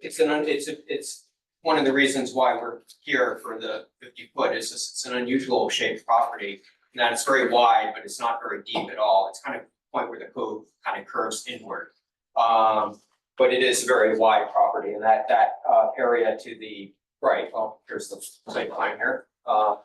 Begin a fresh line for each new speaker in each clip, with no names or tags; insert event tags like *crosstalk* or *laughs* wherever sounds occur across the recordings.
it's an, un- it's, a- it's one of the reasons why we're here for the fifty foot is this, it's an unusual shaped property. And that it's very wide, but it's not very deep at all. It's kind of the point where the code kind of curves inward. Um, but it is a very wide property and that, that, uh, area to the right, well, here's the site plan here, uh.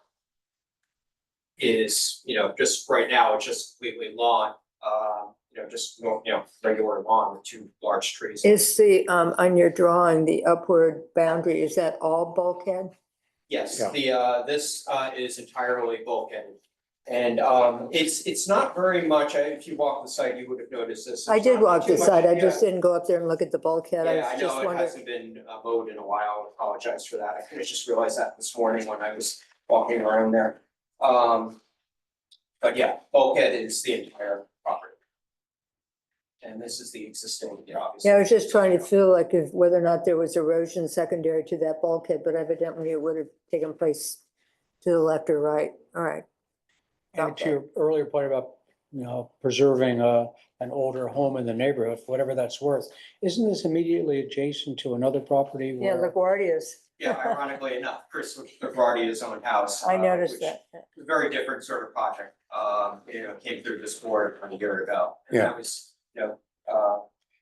Is, you know, just right now, it's just completely lawn, uh, you know, just, you know, regular lawn with two large trees.
Is the, um, on your drawing, the upward boundary, is that all bulkhead?
Yes,
Yeah.
the, uh, this, uh, is entirely bulkhead. And, um, it's, it's not very much, I- if you walk the site, you would have noticed this.
I
It's
did
not
walk
too
this
much-
side. I
yeah.
just didn't go up there and look at the bulkhead. I
Yeah, I
was just
know, it
wondering.
hasn't been uh, mowed in a while, I apologize for that, I kinda just realized that this morning when I was walking around there. Um, but yeah, bulkhead is the entire property. And this is the existing, yeah, obviously.
Yeah, I was just trying to feel like if, whether or not there was erosion secondary to that bulkhead, but evidently it would have taken place to the left or right. All right.
And
about
to your earlier point about, you know, preserving uh an older home in the neighborhood, whatever that's worth. Isn't this immediately adjacent to another property
Yeah,
where,
LaGuardia's.
Yeah, ironically enough, Chris Gavardia's own house.
I
uh,
noticed
which
that.
very different sort of project, um, you know, came through this board a year ago. And that was, you know, uh,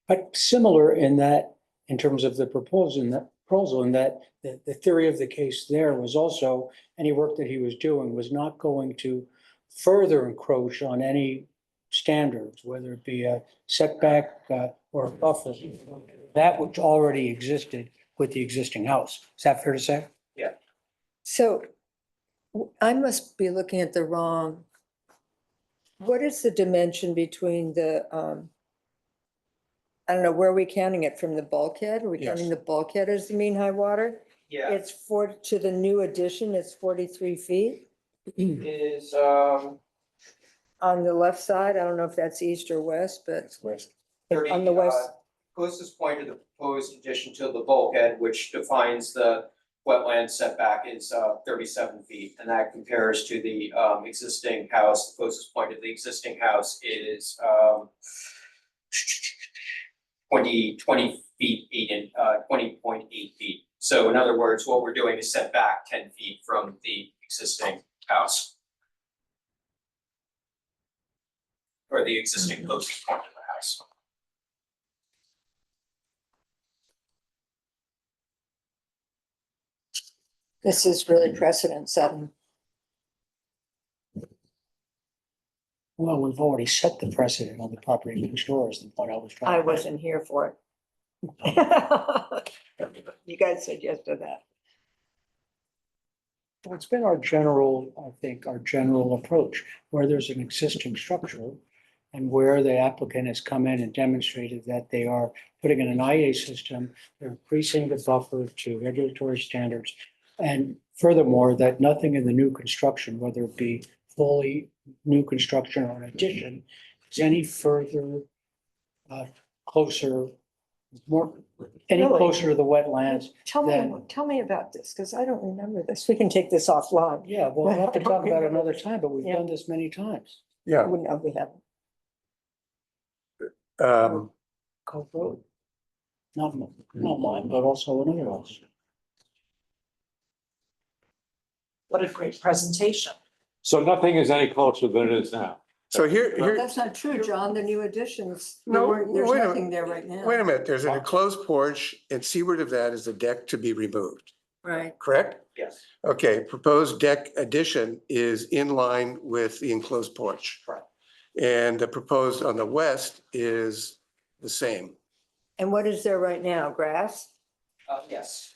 but similar in that, in terms of the proposal, in that proposal, in that the the theory of the case there was also any work that he was doing was not going to further encroach on any standards, whether it be a setback uh or a buffer, that which already existed with the existing house. Is that fair to say?
So w- I must be looking at the wrong. What is the dimension between the, um, I don't know, where are we counting it? From the bulkhead? Are we counting
Yes.
the bulkhead as the mean high water?
yeah,
It's four, to the new addition, it's forty-three feet
is, um,
on the left side. I don't know if that's east or west, but
thirty.
on the west,
uh, Closest point of the proposed addition to the bulkhead, which defines the wetland setback is, uh, thirty-seven feet. And that compares to the, um, existing house, the closest point of the existing house is, um, 20 20 feet, eight in, uh, twenty point eight feet. So in other words, what we're doing is set back ten feet from the existing house. Or the existing closest point of the house.
this is really precedent setting.
Well, we've already set the precedent on the property next door is the point I was trying to.
I wasn't here for it. *laughs* You guys said yes to that.
Well, It's been our general, I think, our general approach, where there's an existing structure and where the applicant has come in and demonstrated that they are putting in an IA system, they're increasing the buffer to regulatory standards. And furthermore, that nothing in the new construction, whether it be fully new construction or an addition, is any further uh, closer, more, any
Really?
closer to the wetlands.
Tell me,
then-
tell me about this, because I don't remember this. We can take this offline.
Yeah, we'll have to talk about it another time, but we've
Yeah.
done this many times.
I
Yeah,
wouldn't know we have.
um,
Cove Road. Not, m- not mine, but also another house.
What a great presentation.
So nothing is any closer than it is now.
so here, here,
That's not true, John. The new additions,
there No, weren't- there's
there's
wait a-
nothing
nothing
there right now.
wait a minute, there's an enclosed porch and seaward of that is a deck to be removed,
Right.
correct?
Yes.
Okay, proposed deck addition is in line with the enclosed porch.
Correct.
And the proposed on the west is the same.
And what is there right now? Grass?
Uh, yes.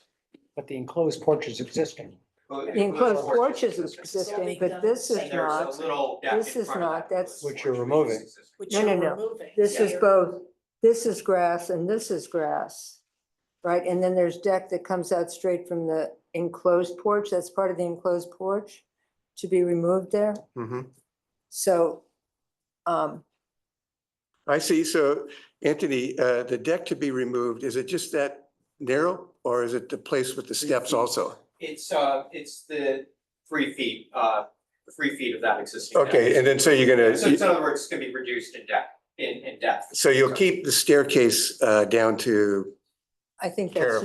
But the enclosed porch is existing.
The enclosed porch is existing, but this is
And there's
not.
a little deck in
This is
front of
not,
that
that's-
porch,
Which you're
is
removing.
existing.
which
No,
you're
no, no.
removing.
This
So
is
you're-
both, this is grass and this is grass. Right? And then there's deck that comes out straight from the enclosed porch. That's part of the enclosed porch to be removed there.
Mhm.
So, um,
I see. So Anthony, uh, the deck to be removed, is it just that narrow or is it the place with the steps also?
It's, uh, it's the three feet, uh, three feet of that existing. deck.
Okay, and then so you're gonna.
So in other words, it's gonna be reduced in depth, in, in depth.
So you'll keep the staircase uh, down to
I think
Care
that's
of